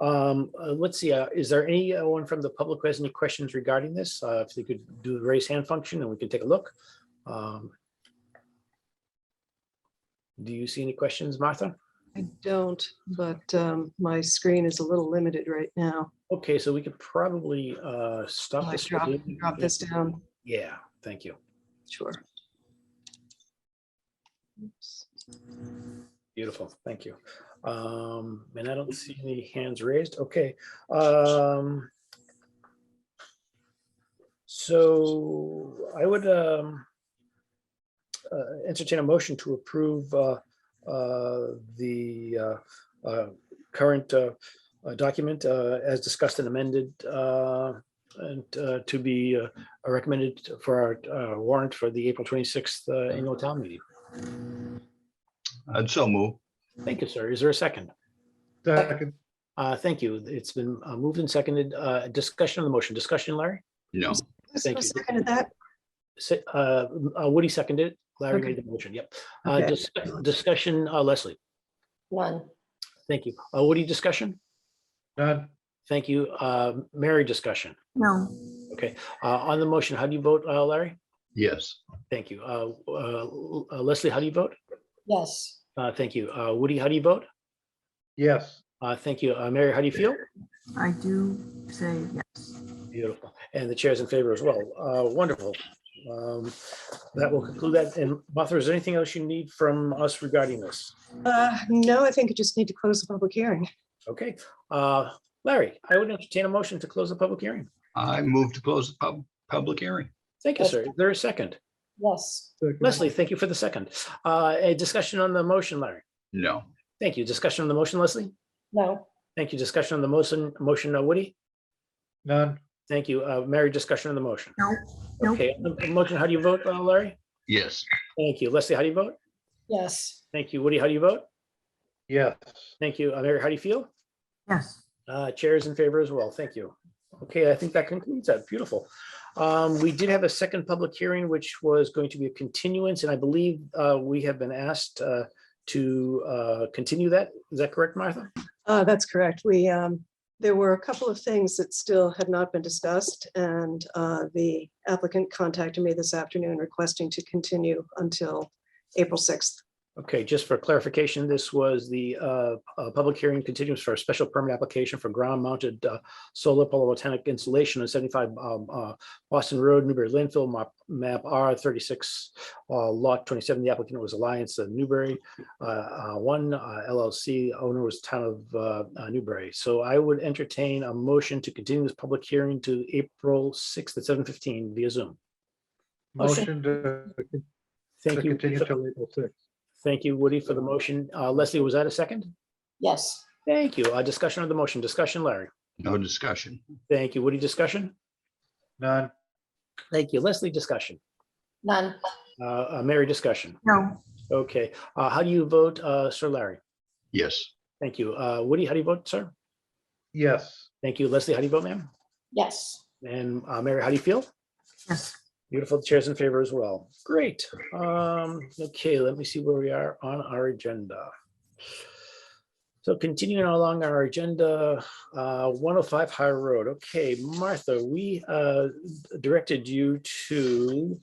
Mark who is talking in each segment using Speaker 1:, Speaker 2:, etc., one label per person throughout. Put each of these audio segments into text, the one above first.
Speaker 1: Um, uh, let's see, uh, is there anyone from the public who has any questions regarding this? Uh, if they could do the raise hand function and we can take a look. Um. Do you see any questions, Martha?
Speaker 2: I don't, but um, my screen is a little limited right now.
Speaker 1: Okay, so we could probably, uh, stop
Speaker 2: I
Speaker 1: this.
Speaker 2: drop, drop this down,
Speaker 1: Yeah, thank you.
Speaker 2: sure. Oops.
Speaker 1: Beautiful, thank you. Um, and I don't see any hands raised, okay. Um. So I would, um. Uh, entertain a motion to approve, uh, uh, the, uh, uh, current, uh, uh, document, uh, as discussed and amended, uh. And, uh, to be uh, recommended for our, uh, warrant for the April twenty-sixth, uh, annual town meeting.
Speaker 3: I'd so move.
Speaker 1: Thank you, sir. Is there a second?
Speaker 4: Second,
Speaker 1: Uh, Thank you. It's been uh, moved and seconded. Uh, Discussion on the motion. Discussion, Larry?
Speaker 3: No,
Speaker 2: Who's-
Speaker 1: Thank
Speaker 2: who
Speaker 1: you.
Speaker 2: Seconded that?
Speaker 1: Se- uh, uh, Woody seconded. it. Larry
Speaker 2: Okay.
Speaker 1: made the motion. Yep. Uh,
Speaker 2: Okay.
Speaker 1: dis- Discussion, uh, Leslie.
Speaker 5: None.
Speaker 1: Thank you. Uh, Woody, discussion?
Speaker 4: none,
Speaker 1: Thank you. Uh, Mary, discussion?
Speaker 5: No.
Speaker 1: Okay. Uh, On the motion, how do you vote, uh, Larry?
Speaker 3: yes,
Speaker 1: Thank you. Uh, uh, Leslie, how do you vote?
Speaker 5: Yes.
Speaker 1: Uh, Thank you. Uh, Woody, how do you vote?
Speaker 4: yes,
Speaker 1: Uh, Thank you. Uh, Mary, how do you feel?
Speaker 6: I do say yes.
Speaker 1: Beautiful. And the chair's in favor as well. Uh, Wonderful. Um, That will conclude that. And Martha, is there anything else you need from us regarding this?
Speaker 2: Uh, No, I think I just need to close the public hearing.
Speaker 1: Okay. Uh, Larry, I would entertain a motion to close the public hearing.
Speaker 3: I move to close the pub, public hearing.
Speaker 1: Thank you, sir. Is There is a second.
Speaker 5: Yes.
Speaker 4: second,
Speaker 1: Leslie, thank you for the second. Uh, A discussion on the motion, Larry.
Speaker 3: No,
Speaker 1: Thank you. Discussion on the motion, Leslie.
Speaker 5: No.
Speaker 1: Thank you. Discussion on the motion, motion, uh, Woody.
Speaker 4: none,
Speaker 1: Thank you. Uh, Mary, discussion on the motion.
Speaker 6: No, no.
Speaker 1: Okay, on the motion, how do you vote, uh, Larry?
Speaker 3: yes,
Speaker 1: Thank you. Leslie, how do you vote?
Speaker 5: Yes.
Speaker 1: Thank you. Woody, how do you vote?
Speaker 4: yes,
Speaker 1: Thank you. Uh, Mary, how do you feel?
Speaker 6: Yes.
Speaker 1: Uh, Chair is in favor as well. Thank you. Okay, I think that concludes that. Beautiful. Um, We did have a second public hearing, which was going to be a continuance, and I believe uh, we have been asked uh, to uh, continue that. Is that correct, Martha?
Speaker 2: Uh, That's correct. We, um, there were a couple of things that still had not been discussed, and uh, the applicant contacted me this afternoon requesting to continue until April 6th.
Speaker 1: Okay, just for clarification, this was the uh, uh, public hearing continues for a special permit application for ground-mounted uh, solar photovoltaic installation on 75 um, uh, Boston Road, Newbury landfill, map- map R 36, uh, lot 27. The applicant was Alliance of Newbury uh, uh, One uh, LLC, owner was Town of uh, uh, Newbury. So I would entertain a motion to continue this public hearing to April 6th at 7:15 via Zoom.
Speaker 4: motion to to
Speaker 1: Thank you.
Speaker 4: continue till April sixth,
Speaker 1: Thank you, Woody, for the motion. Uh, Leslie, was that a second?
Speaker 5: Yes.
Speaker 1: Thank you. A discussion of the motion. Discussion, Larry.
Speaker 3: no discussion.
Speaker 1: Thank you. Woody, discussion?
Speaker 4: none,
Speaker 1: Thank you. Leslie, discussion.
Speaker 5: None.
Speaker 1: Uh, uh, Mary, discussion.
Speaker 6: No,
Speaker 1: Okay. Uh, how do you vote, uh, Sir Larry?
Speaker 3: Yes,
Speaker 1: Thank you. Uh, Woody, how do you vote, sir?
Speaker 4: yes,
Speaker 1: Thank you. Leslie, how do you vote, ma'am?
Speaker 5: Yes.
Speaker 1: And, uh, Mary, how do you feel?
Speaker 6: yes.
Speaker 1: Beautiful. The Chair's in favor as well. Great. Um, okay, let me see where we are on our agenda. So continuing along our agenda, uh, 105 High Road. Okay, Martha, we uh, directed you to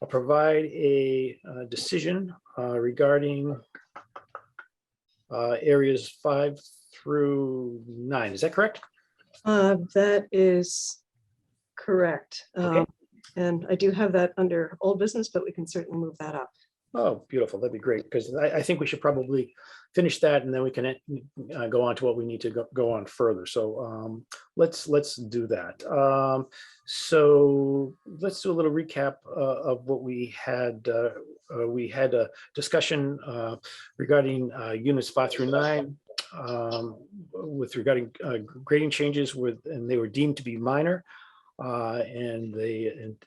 Speaker 1: uh, provide a uh, decision uh, regarding uh, areas five through nine. Is that correct?
Speaker 2: Uh, That is correct.
Speaker 1: Okay.
Speaker 2: Um, And I do have that under old business, but we can certainly move that up.
Speaker 1: Oh, beautiful. That'd be great, because I, I think we should probably finish that and then we can uh, go on to what we need to go, go on further. So um, let's, let's do that. Um, so let's do a little recap uh, of what we had. Uh, uh, we had a discussion uh, regarding uh, units five through nine um, with regarding uh, grading changes with, and they were deemed to be minor. Uh, and they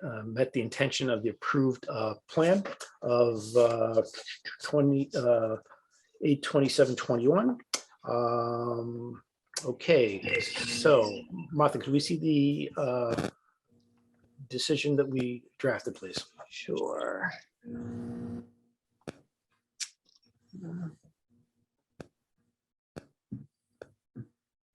Speaker 1: uh, met the intention of the approved uh, plan of uh, 20, uh, 8, 27, 21. Um, Okay, so Martha, could we see the uh, decision that we drafted, please?
Speaker 2: Sure. Um,